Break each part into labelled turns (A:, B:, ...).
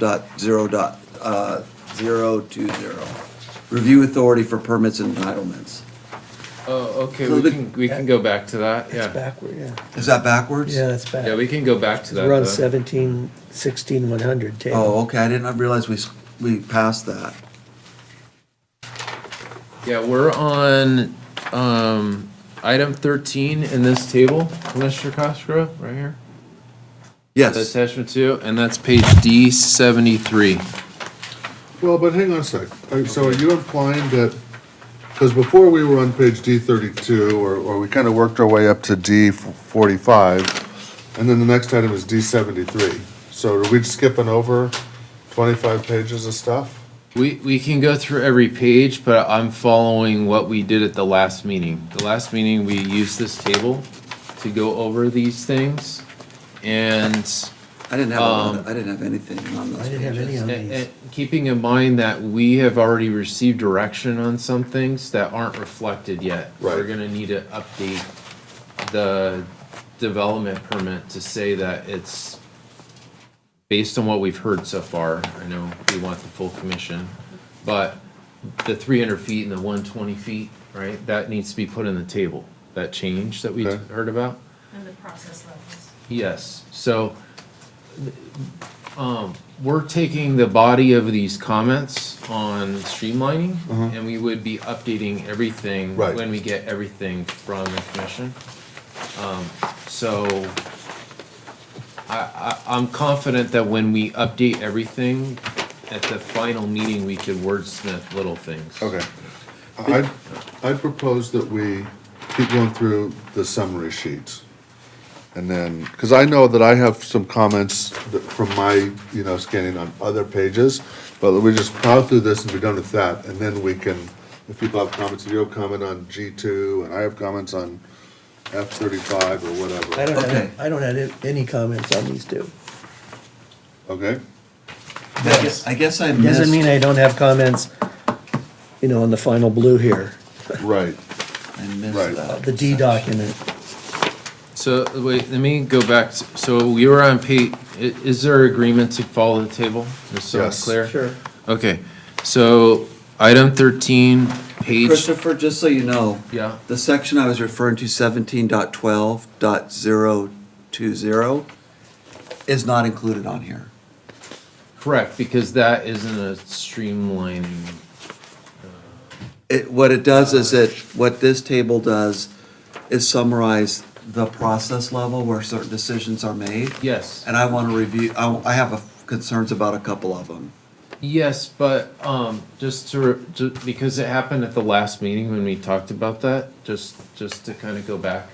A: dot zero dot, uh, zero two zero. Review authority for permits and entitlements.
B: Oh, okay,
A: So
B: we
A: the-
B: can, we can go back to that,
C: It's
B: yeah.
C: backward, yeah.
A: Is that backwards?
C: Yeah, it's back.
B: Yeah, we can go back to
C: It's
B: that.
C: around
B: though.
C: seventeen, sixteen, one hundred table.
A: Oh, okay, I didn't realize we, s- we passed that.
B: Yeah, we're on, um, item thirteen in this table, Commissioner Cosgrove, right here.
A: Yes,
B: Attachment two, and that's page D seventy-three.
D: Well, but hang on a sec. Uh, So are you implying that, because before we were on page D thirty-two, or, or we kind of worked our way up to D forty-five, and then the next item is D seventy-three. So are we skipping over twenty-five pages of stuff?
B: We, we can go through every page, but I'm following what we did at the last meeting. The last meeting, we used this table to go over these things. And
A: I didn't have, a- I didn't have anything on those
C: I didn't have
A: pages.
C: any on
B: And-
C: these.
B: and Keeping in mind that we have already received direction on some things that aren't reflected yet. We're
D: Right.
B: gonna need to update the development permit to say that it's based on what we've heard so far, I know we want the full commission, but the three hundred feet and the one twenty feet, right, that needs to be put in the table, that change that we
D: Okay.
B: heard about.
E: And the process levels.
B: Yes, so, um, we're taking the body of these comments on streamlining, and we would be updating everything
D: Mm-hmm. Right.
B: when we get everything from the commission. Um, so, I, I, I'm confident that when we update everything, at the final meeting, we could wordsmith little things.
D: Okay. I, I propose that we keep going through the summary sheets. And then, because I know that I have some comments that- from my, you know, scanning on other pages, but we just plow through this and be done with that, and then we can, if people have comments, if you have comment on G two, and I have comments on F thirty-five or
C: I
D: whatever,
C: don't
A: Okay.
C: have, I don't have any comments on these two.
D: okay?
A: I guess- I guess I missed.
C: Doesn't mean I don't have comments, you know, on the final blue here, uh,
D: Right,
A: I missed
D: Right.
A: that.
C: the D document.
B: So, wait, let me go back, s- so we were on page, is there agreement to follow the table? Just so it's
D: Yes.
B: clear? Okay, so item thirteen, page,
A: Christopher, just so you know,
B: yeah,
A: the section I was referring to, seventeen dot twelve dot zero two zero, is not included on here.
B: correct, because that isn't a streamlining.
A: It, what it does is it, what this table does is summarize the process level where certain decisions are made.
B: Yes,
A: And I want to review, I, I have a- concerns about a couple of them.
B: yes, but, um, just to, ju- because it happened at the last meeting when we talked about that, just, just to kind of go back.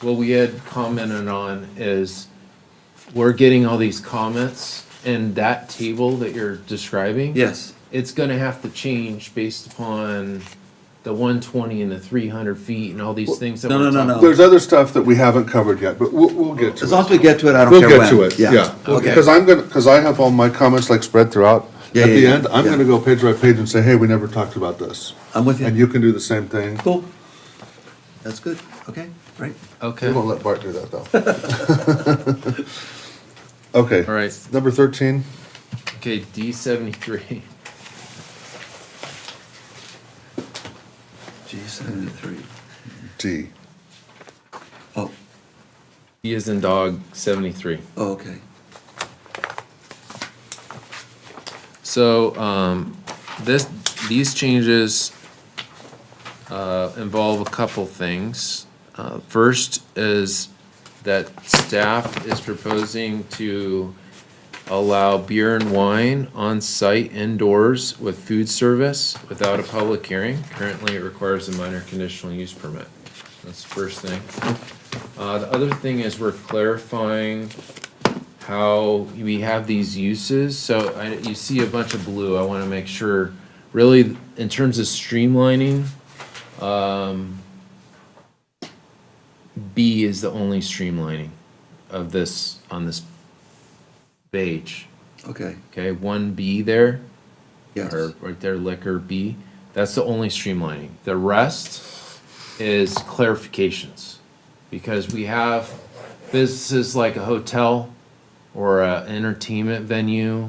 B: What we had commented on is we're getting all these comments and that table that you're describing.
A: Yes,
B: it's gonna have to change based upon the one twenty and the three hundred feet and all these things that
A: no,
B: we're
A: no,
B: talking
A: no,
B: about.
A: no.
D: there's other stuff that we haven't covered yet, but we'll, we'll get to it.
A: as long as we get to it, I don't
D: We'll
A: care when.
D: get to it, yeah.
A: Okay.
D: Because I'm gonna, because I have all my comments like spread throughout.
A: Yeah,
D: At
A: yeah,
D: the
A: yeah,
D: end, I'm
A: yeah.
D: gonna go page by page and say, hey, we never talked about this.
A: I'm with
D: And
A: you.
D: you can do the same thing.
A: Cool. That's good. Okay, great.
D: We
B: Okay,
D: won't
B: all
D: let Bart do that, though. Okay.
B: right,
D: Number thirteen,
B: okay, D seventy-three,
A: G seventy-three.
D: D.
A: Oh,
B: D is in dog seventy-three.
A: oh, okay.
B: So, um, this, these changes, uh, involve a couple things. Uh, first is that staff is proposing to allow beer and wine on-site indoors with food service without a public hearing. Currently, it requires a minor conditional use permit. That's the first thing. Uh, the other thing is we're clarifying how we have these uses, so I, you see a bunch of blue, I wanna make sure, really, in terms of streamlining, um, B is the only streamlining of this, on this page,
A: Okay,
B: okay, one B there,
A: yes.
B: or right there, liquor B, that's the only streamlining, the rest is clarifications. Because we have businesses like a hotel or a entertainment venue